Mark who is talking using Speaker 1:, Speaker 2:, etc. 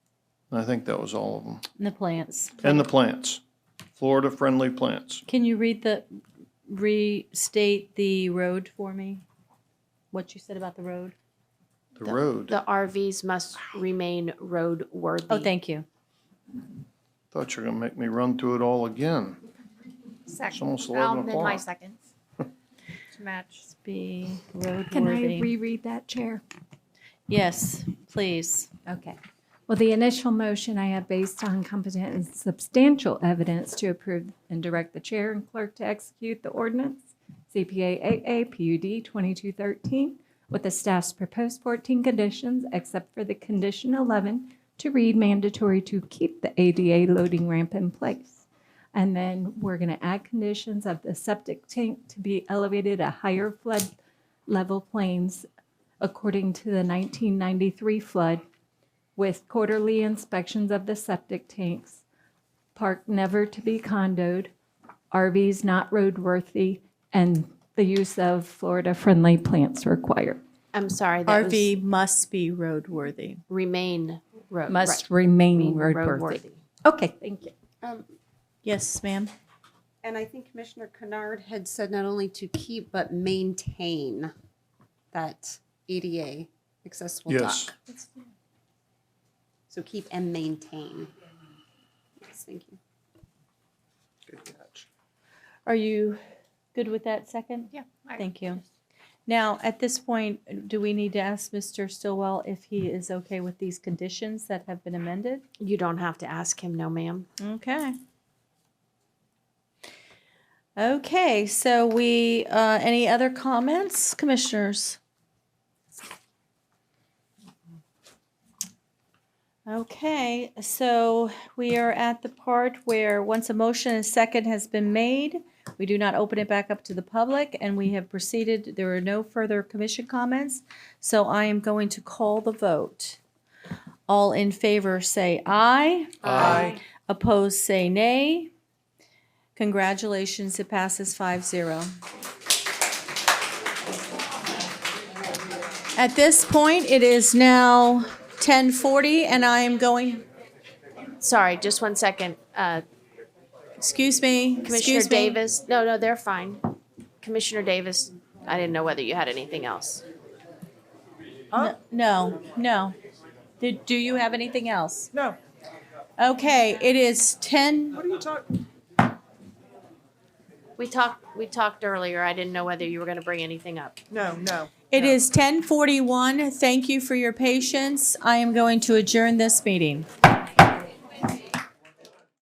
Speaker 1: And I think that was all of them.
Speaker 2: and the plants.
Speaker 1: And the plants, Florida-friendly plants.
Speaker 2: Can you read the, restate the road for me? What you said about the road?
Speaker 1: The road,
Speaker 3: The RVs must remain roadworthy.
Speaker 2: Oh, thank you.
Speaker 1: thought you were gonna make me run through it all again.
Speaker 4: Second.
Speaker 1: almost 11
Speaker 4: I'll amend my
Speaker 1: o'clock.
Speaker 4: second. To match.
Speaker 2: Be
Speaker 5: Can I
Speaker 2: roadworthy.
Speaker 5: reread that, Chair?
Speaker 2: Yes, please.
Speaker 5: Okay. Well, the initial motion I have based on competent and substantial evidence to approve and direct the chair and clerk to execute the ordinance, CPA AA PUD 2213, with the staff's proposed 14 conditions, except for the condition 11, to read mandatory to keep the ADA loading ramp in place. And then we're going to add conditions of the septic tank to be elevated at higher flood level planes according to the 1993 flood with quarterly inspections of the septic tanks, park never to be condoed, RVs not roadworthy, and the use of Florida-friendly plants required.
Speaker 3: I'm sorry, that was
Speaker 2: RV must be roadworthy.
Speaker 3: remain road.
Speaker 5: Must
Speaker 3: right,
Speaker 5: remain
Speaker 3: remain
Speaker 5: roadworthy. Okay, thank you.
Speaker 6: Um,
Speaker 2: Yes, ma'am.
Speaker 6: And I think Commissioner Kennard had said not only to keep, but maintain that ADA accessible dock.
Speaker 1: Yes.
Speaker 6: So keep and maintain. Yes, thank you.
Speaker 1: Good catch.
Speaker 2: Are you good with that second?
Speaker 4: Yeah, I-
Speaker 2: Thank you. Now, at this point, do we need to ask Mr. Stillwell if he is okay with these conditions that have been amended?
Speaker 3: You don't have to ask him, no, ma'am.
Speaker 2: Okay. Okay, so we, uh, any other comments, commissioners? Okay, so we are at the part where, once a motion and second has been made, we do not open it back up to the public, and we have proceeded, there are no further commission comments, so I am going to call the vote. All in favor, say aye.
Speaker 1: Aye.
Speaker 2: Opposed, say nay. Congratulations, it passes 5-0. At this point, it is now 10:40, and I am going,
Speaker 3: Sorry, just one second. Uh,
Speaker 2: excuse me,
Speaker 3: Commissioner
Speaker 2: excuse me.
Speaker 3: Davis, no, no, they're fine. Commissioner Davis, I didn't know whether you had anything else.
Speaker 2: N- No, no. Do- Do you have anything else? No. Okay, it is 10,
Speaker 3: We talked, we talked earlier. I didn't know whether you were going to bring anything up.
Speaker 7: No, no.
Speaker 2: it is 10:41. Thank you for your patience. I am going to adjourn this meeting.